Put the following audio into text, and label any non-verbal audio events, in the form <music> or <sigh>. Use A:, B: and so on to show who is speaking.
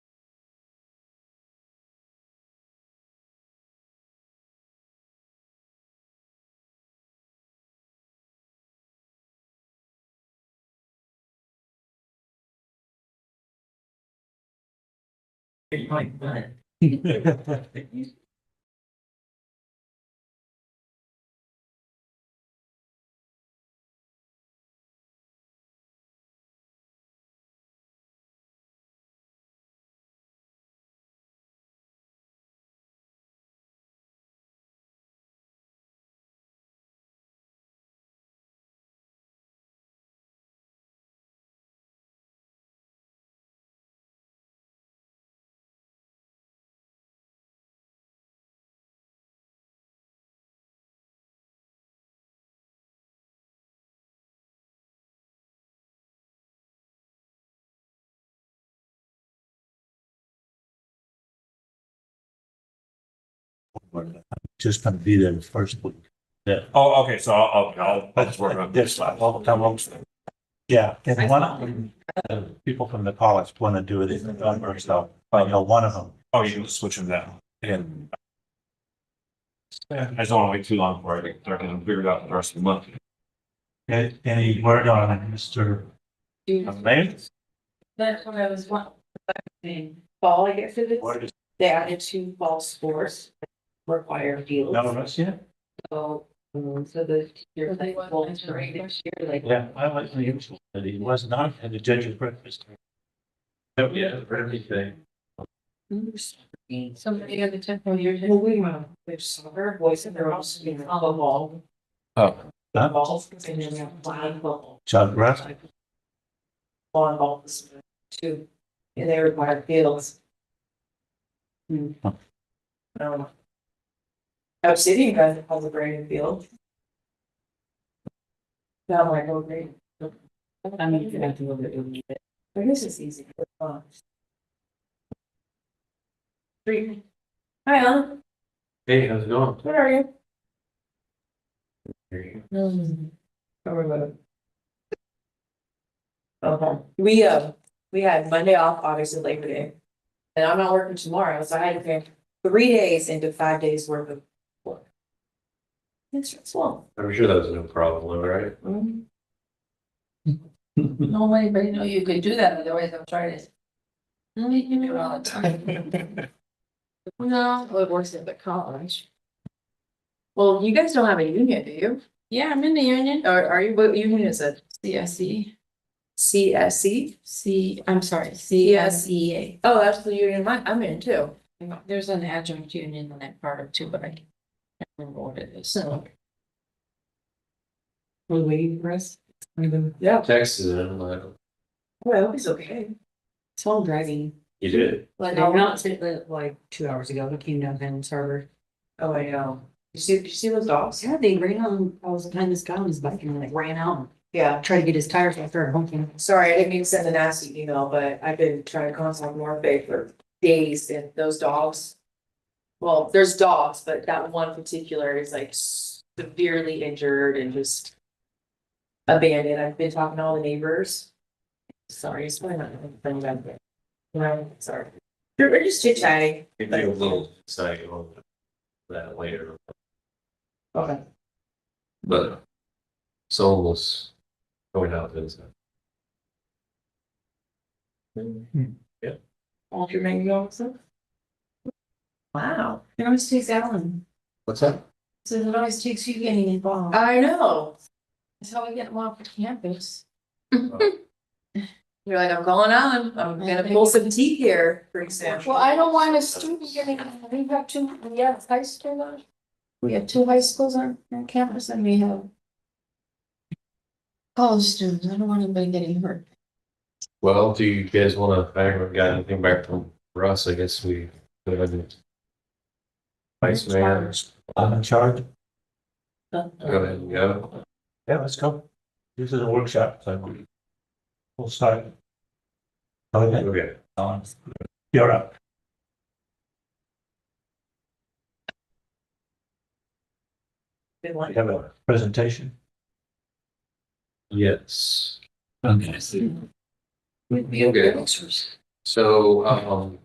A: <laughs> Oh,
B: <laughs> Just gonna be there the first week.
A: Oh, okay, so I'll, I'll- I'll, I'll just work on
B: That's
A: this.
B: all the time. Yeah, and one of them, uh, people from the college want to do it in November, so I know one of them.
A: Oh, you can switch them down.
B: And
A: I just don't want to wait too long for it. I can figure it out the rest of the month.
B: and any word on it, Mr. Mayor?
C: That's what I was wondering. Fall, I guess it is,
B: Word is
C: they added two fall sports require fields.
B: no rush yet?
C: So, um, so the
D: So
C: teacher
D: they
C: like,
D: want
C: well,
D: them to
C: right
D: read.
C: next year, like.
B: Yeah, I like the usual, but he was not at the judge's breakfast. Oh, yeah, everything.
D: Mm-hmm. So many of the temple years.
C: Well, we want, there's soccer, boys, and they're also in the ball.
A: Oh.
B: Huh?
C: Balls, and then we have volleyball,
B: John Russ,
C: volleyball, this is two, and they require fields. Hmm. Um,
B: Huh.
C: I don't know. Obsidian has has a great field. Now, like, oh, great. I mean, you have to look at it. But this is easy. it's fun. Three. Hi, Alan.
E: Hey, how's it going?
C: What are you?
E: Very
C: Mm-hmm. Okay, we, uh, we had Monday off, obviously Labor Day. And I'm not working tomorrow, so I had to pay three days into five days worth of work. It's Mm-hmm. stressful.
E: I'm sure that was no problem,
C: <laughs>
E: right?
D: No way, but you know, you could do that, otherwise I'm trying to. No, you do it all the time. <laughs> No, well, it works at the college. Well, you guys don't have a union, do you? Yeah, I'm in the union.
C: Are, are you, what union is it?
D: CSE,
C: CSC?
D: E. C, I'm sorry, CSEA.
C: CSEA. Oh, that's the union I'm, I'm in too.
D: There's an adjunct union in that part of too, but I can't remember what it is.
C: Oh.
D: So
C: We're waiting for us. Yeah,
E: Texas, I'm like,
C: well, it's okay.
F: It's all driving.
E: you did?
F: Like,
C: I'll-
F: I'm not sitting there, uh, like two hours ago, I came down Vans Harbor.
C: Oh, I know. You see, you see those dogs?
F: Yeah, they ran on, I was behind this guy on his bike and like ran out
C: Yeah,
F: and tried to get his tires so I started honking.
C: sorry, I didn't mean to send a nasty email, but I've been trying to contact North Bay for days and those dogs. Well, there's dogs, but that one particular is like severely injured and just abandoned. I've been talking to all the neighbors. Sorry, it's probably not. gonna bring that back. No, sorry. We're just chit chatting.
E: You did a little side on that later,
C: Okay.
E: but it's almost going out this.
C: All your mango also? Wow. It always takes Alan.
E: What's that?
D: so it always takes you getting involved.
C: I know.
D: That's how we get them off the campus.
C: You're like, I'm going on. I'm gonna pull some teeth here pretty soon.
D: Well, I don't want a student getting, we have two, we have high school on. We have two high schools on, on campus and we have. College students, I don't want anybody getting hurt.
E: Well, do you guys wanna, I haven't got anything back from Russ, I guess we. we haven't- Vice Mayor,
B: I'm in charge.
E: go ahead and go.
B: Yeah, let's go. This is a workshop, so we'll start. Okay,
E: Okay.
B: Alan, you're up.
C: Good
B: We
C: one.
B: have a presentation.
E: Yes.
B: Okay.
E: Okay. So, um,